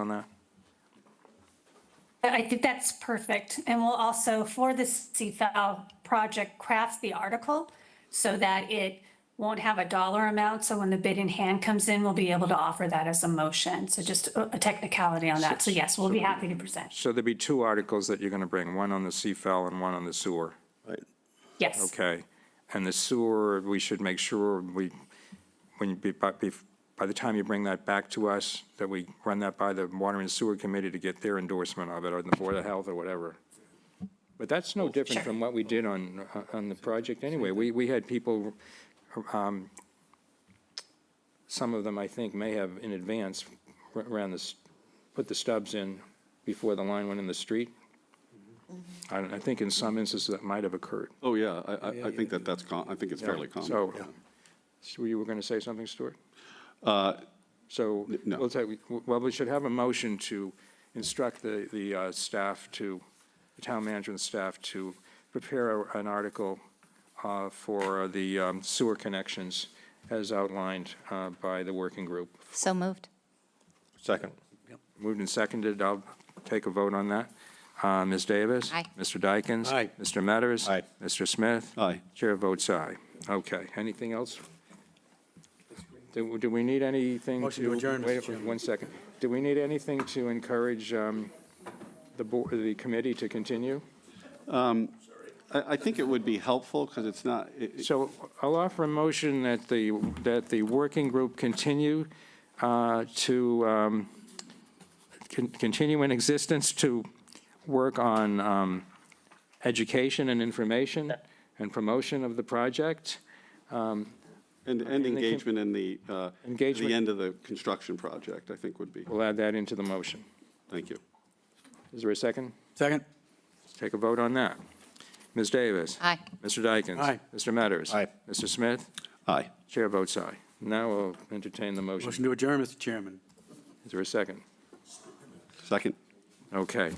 on that. I think that's perfect. And we'll also, for the CFAL project, craft the article so that it won't have a dollar amount. So when the bid in hand comes in, we'll be able to offer that as a motion. So just a a technicality on that. So yes, we'll be happy to present. So there'd be two articles that you're going to bring, one on the CFAL and one on the sewer. Yes. Okay. And the sewer, we should make sure we, when, you be- by bef- by the time you bring that back to us, that we run that by the Water and Sewer Committee to get their endorsement of it, or the Board of Health, or whatever. But that's no different from what we did on, uh, on the project anyway. We, we had people, um, some of them, I think, may have in advance r- ran this, put the stubs in before the line went in the street. I don't, I think in some instances that might have occurred. Oh, yeah, I, I, I think that that's, com- I think it's fairly common. So, so you were going to say something, Stuart? Uh, So, no. we'll take, well, we should have a motion to instruct the, the uh, staff to, the town management staff to prepare a- an article uh, for the um, sewer connections as outlined uh, by the working group. So moved. Second. Moved and seconded, I'll take a vote on that. Uh, Ms. Davis? Aye. Mr. Dykens? Aye. Mr. Metters? Aye. Mr. Smith? Aye. Chair votes aye. Okay, anything else? Do, do we need anything to? Motion to adjourn, Mr. wait, Chairman. One second. Do we need anything to encourage um, the board, the committee to continue? I, I think it would be helpful, because it's not, it- it- So I'll offer a motion that the, that the working group continue uh, to, um, con- continue in existence to work on um, education and information and promotion of the project. and, and engagement in the, uh, Engagement. the end of the construction project, I think would be, We'll add that into the motion. thank you. Is there a second? Second. Let's Take a vote on that. Ms. Davis? Aye. Mr. Dykens? Aye. Mr. Metters? Aye. Mr. Smith? Aye. Chair votes aye. Now we'll entertain the motion. Motion to adjourn, Mr. Chairman. Is there a second? Second. Okay.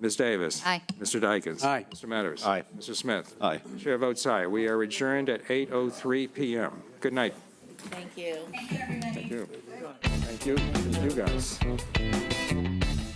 Ms. Davis? Aye. Mr. Dykens? Aye. Mr. Metters? Aye. Mr. Smith? Aye. Chair votes aye. We are adjourned at 8:03 PM. Good night. Thank you. Thank you. Thank you, you guys.